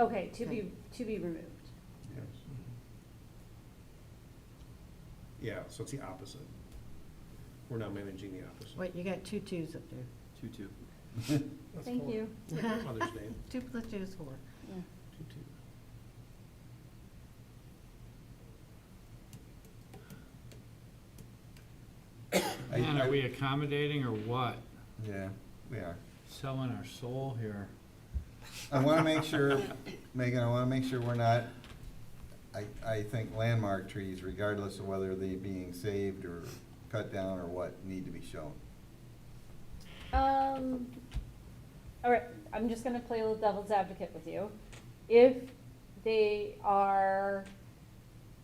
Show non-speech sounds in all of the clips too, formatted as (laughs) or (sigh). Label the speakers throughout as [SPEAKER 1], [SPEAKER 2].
[SPEAKER 1] Okay, to be, to be removed.
[SPEAKER 2] Yes. Yeah, so it's the opposite. We're now managing the opposite.
[SPEAKER 3] Wait, you got two twos up there.
[SPEAKER 4] Two, two.
[SPEAKER 2] That's
[SPEAKER 1] Thank
[SPEAKER 2] four.
[SPEAKER 1] you.
[SPEAKER 2] Mother's Day.
[SPEAKER 3] (laughs) Two plus two is four.
[SPEAKER 1] Yeah.
[SPEAKER 2] Two, two.
[SPEAKER 5] I-
[SPEAKER 4] Man, are
[SPEAKER 5] I-
[SPEAKER 4] we accommodating or what?
[SPEAKER 5] Yeah, we are.
[SPEAKER 4] Selling our soul here.
[SPEAKER 5] I want to make
[SPEAKER 4] (laughs)
[SPEAKER 5] sure, Megan, I want to make sure we're not, I, I think landmark trees, regardless of whether they're being saved or cut down or what, need to be shown.
[SPEAKER 1] Um, all right, I'm just gonna play a little devil's advocate with you. If they are,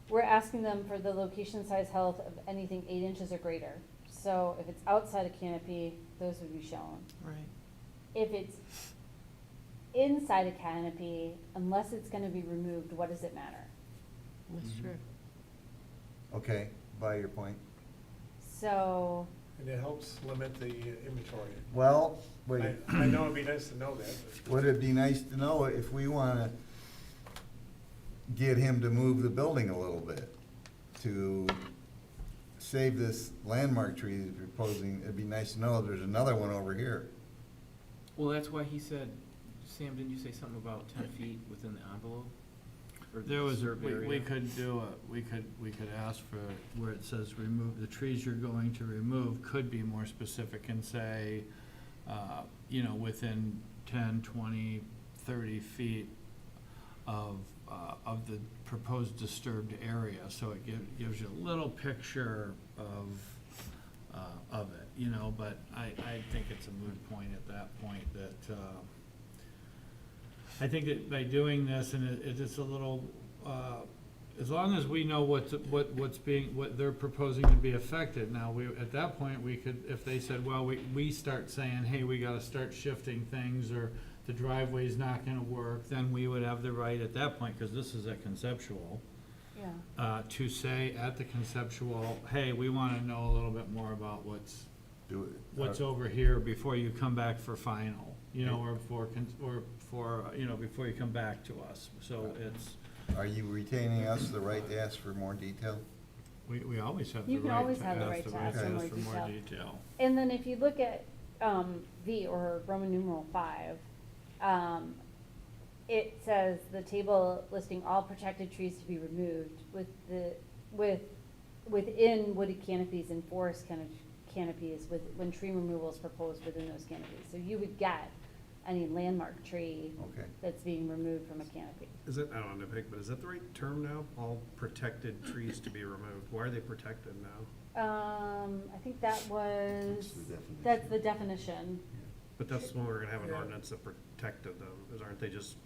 [SPEAKER 1] we're asking them for the location, size, health of anything eight inches or greater. So if it's outside a canopy, those would be shown.
[SPEAKER 3] Right.
[SPEAKER 1] If it's inside a canopy, unless it's gonna be removed, what does it matter?
[SPEAKER 3] That's
[SPEAKER 2] Mm-hmm.
[SPEAKER 4] Mhm.
[SPEAKER 3] true.
[SPEAKER 5] Okay, by your point.
[SPEAKER 1] So,
[SPEAKER 6] And it helps limit the inventory.
[SPEAKER 5] Well,
[SPEAKER 6] I,
[SPEAKER 5] wait,
[SPEAKER 6] I know it'd be nice to know that, but
[SPEAKER 5] would it be nice to know if we want to get him to move the building a little bit to save this landmark tree he's proposing? It'd be nice to know if there's another one over here.
[SPEAKER 7] Well, that's why he said, Sam, didn't you say something about ten feet within the envelope? Or the
[SPEAKER 4] There was,
[SPEAKER 7] reserve
[SPEAKER 4] we, we
[SPEAKER 7] area?
[SPEAKER 4] could do a, we could, we could ask for where it says remove, the trees you're going to remove could be more specific and say, uh, you know, within ten, twenty, thirty feet of, uh, of the proposed disturbed area, so it gives, gives you a little picture of, uh, of it, you know, but I, I think it's a moot point at that point that, uh, I think that by doing this, and it, it is a little, uh, as long as we know what's, what, what's being, what they're proposing to be affected, now, we, at that point, we could, if they said, well, we, we start saying, hey, we gotta start shifting things, or the driveway's not gonna work, then we would have the right at that point, cause this is a conceptual,
[SPEAKER 1] yeah.
[SPEAKER 4] uh, to say at the conceptual, hey, we wanna know a little bit more about what's,
[SPEAKER 5] Do it.
[SPEAKER 4] what's over here before you come back for final, you know, or for, con- or for, you know, before you come back to us. So it's,
[SPEAKER 5] Are you retaining us the right to ask for more detail?
[SPEAKER 4] we, we always have the
[SPEAKER 1] You can
[SPEAKER 4] right
[SPEAKER 1] always
[SPEAKER 4] to
[SPEAKER 1] have the
[SPEAKER 4] ask,
[SPEAKER 1] right
[SPEAKER 4] the
[SPEAKER 1] to
[SPEAKER 4] right
[SPEAKER 1] ask
[SPEAKER 4] to
[SPEAKER 5] for
[SPEAKER 4] ask
[SPEAKER 1] more
[SPEAKER 4] for more
[SPEAKER 1] detail.
[SPEAKER 4] detail.
[SPEAKER 1] And then if you look at um, V or Roman numeral five, um, it says the table listing all protected trees to be removed with the, with, within wooded canopies and forest canop- canopies with, when tree removal is proposed within those canopies. So you would get any landmark tree
[SPEAKER 5] Okay.
[SPEAKER 1] that's being removed from a canopy.
[SPEAKER 2] Is it, I don't know, Nick, but is that the right term now? All protected trees to be removed. Why are they protected now?
[SPEAKER 1] Um, I think that was,
[SPEAKER 5] That's the definition.
[SPEAKER 1] that's the definition.
[SPEAKER 2] But that's when we're gonna have an
[SPEAKER 6] Yeah.
[SPEAKER 2] ordinance that protected them, is aren't they just,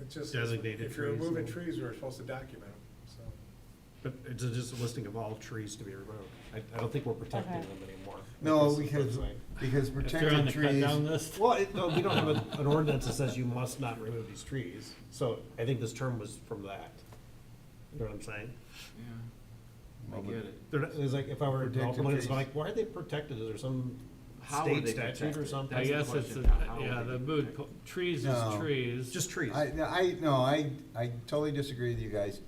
[SPEAKER 6] it's just,
[SPEAKER 2] Designated
[SPEAKER 6] if you're
[SPEAKER 2] trees,
[SPEAKER 6] removing
[SPEAKER 2] though.
[SPEAKER 6] trees, we're supposed to document them, so.
[SPEAKER 2] but it's just a listing of all trees to be removed. I, I don't think we're protecting
[SPEAKER 1] Okay.
[SPEAKER 2] them anymore.
[SPEAKER 5] No,
[SPEAKER 2] This is
[SPEAKER 5] because,
[SPEAKER 2] what's like-
[SPEAKER 5] because
[SPEAKER 4] If they're on
[SPEAKER 5] protected
[SPEAKER 4] the cut
[SPEAKER 5] trees,
[SPEAKER 4] down list,
[SPEAKER 2] Well, it, no, we don't have a- an ordinance that says you must not remove these trees, so I think this term was from that. You know what I'm saying?
[SPEAKER 7] Yeah, I
[SPEAKER 5] Well,
[SPEAKER 7] get it.
[SPEAKER 2] They're not, it's like, if I were a
[SPEAKER 5] Protected
[SPEAKER 2] developer, it's
[SPEAKER 5] trees.
[SPEAKER 2] like, why are they protected, is there some
[SPEAKER 7] How are
[SPEAKER 2] state
[SPEAKER 7] they
[SPEAKER 2] statute or
[SPEAKER 7] protected?
[SPEAKER 2] something?
[SPEAKER 4] I
[SPEAKER 7] That's the
[SPEAKER 4] guess it's,
[SPEAKER 7] question,
[SPEAKER 4] a-
[SPEAKER 7] how
[SPEAKER 4] yeah,
[SPEAKER 7] are they
[SPEAKER 4] the mood,
[SPEAKER 7] protected?
[SPEAKER 4] po- trees is
[SPEAKER 5] No.
[SPEAKER 4] trees.
[SPEAKER 2] Just trees.
[SPEAKER 5] I, I, no, I, I totally disagree with you guys.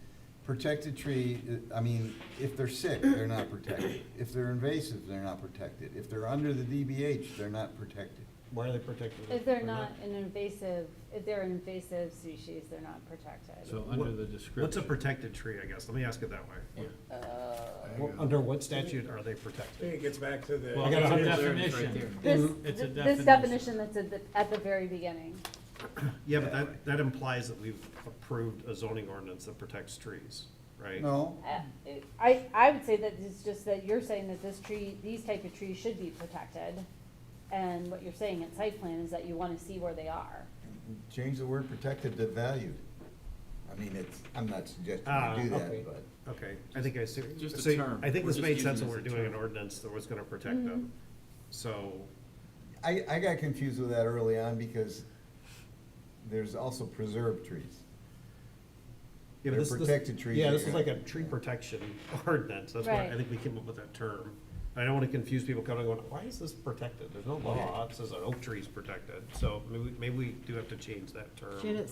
[SPEAKER 5] Protected tree, uh, I mean, if they're sick, they're not protected. If they're invasive, they're not protected. If they're under the DBH, they're not protected.
[SPEAKER 2] Why are they protected?
[SPEAKER 1] If they're not an invasive, if they're an invasive species, they're not protected.
[SPEAKER 4] So under
[SPEAKER 2] What-
[SPEAKER 4] the
[SPEAKER 2] What's a
[SPEAKER 4] description.
[SPEAKER 2] protected tree, I guess, let me ask it that
[SPEAKER 7] Yeah.
[SPEAKER 2] way.
[SPEAKER 5] There
[SPEAKER 2] Well,
[SPEAKER 5] you go.
[SPEAKER 2] Under what statute are they
[SPEAKER 6] I think it
[SPEAKER 2] protected?
[SPEAKER 6] gets back to the.
[SPEAKER 4] Well,
[SPEAKER 2] I got
[SPEAKER 4] it's a
[SPEAKER 2] hundred
[SPEAKER 7] It's right
[SPEAKER 4] definition.
[SPEAKER 7] there.
[SPEAKER 1] This,
[SPEAKER 2] Mhm.
[SPEAKER 4] It's a
[SPEAKER 1] this definition that's at the, at the very beginning.
[SPEAKER 2] Yeah, but that, that implies that we've approved a zoning ordinance that protects trees, right?
[SPEAKER 5] No,
[SPEAKER 1] Uh, it- I, I would say that it's just that you're saying that this tree, these type of trees should be protected. And what you're saying at site plan is that you wanna see where they are.
[SPEAKER 5] change the word protected to valued. I mean, it's, I'm not suggesting
[SPEAKER 2] Ah,
[SPEAKER 5] you do
[SPEAKER 2] okay.
[SPEAKER 5] that, but.
[SPEAKER 2] Okay, I think I see.
[SPEAKER 7] Just a
[SPEAKER 2] so
[SPEAKER 7] term.
[SPEAKER 2] I think
[SPEAKER 7] We're
[SPEAKER 2] this
[SPEAKER 7] just
[SPEAKER 2] made
[SPEAKER 7] using
[SPEAKER 2] sense
[SPEAKER 7] it
[SPEAKER 2] when we
[SPEAKER 7] as
[SPEAKER 2] we're
[SPEAKER 7] a
[SPEAKER 2] doing an
[SPEAKER 7] term.
[SPEAKER 2] ordinance that was gonna protect them.
[SPEAKER 1] Mm-hmm.
[SPEAKER 2] So,
[SPEAKER 5] I, I got confused with that early on because there's also preserved trees.
[SPEAKER 2] yeah, but
[SPEAKER 5] They're
[SPEAKER 2] this- this-
[SPEAKER 5] protected trees
[SPEAKER 2] Yeah,
[SPEAKER 5] that
[SPEAKER 2] this is
[SPEAKER 5] you're-
[SPEAKER 2] like a tree protection (laughs) ordinance, that's why I
[SPEAKER 1] Right.
[SPEAKER 2] think we came up with that term. I don't wanna confuse people coming and going, why is this protected? There's no law, it says an oak tree's protected, so maybe, maybe we do have to change that term.
[SPEAKER 3] Should it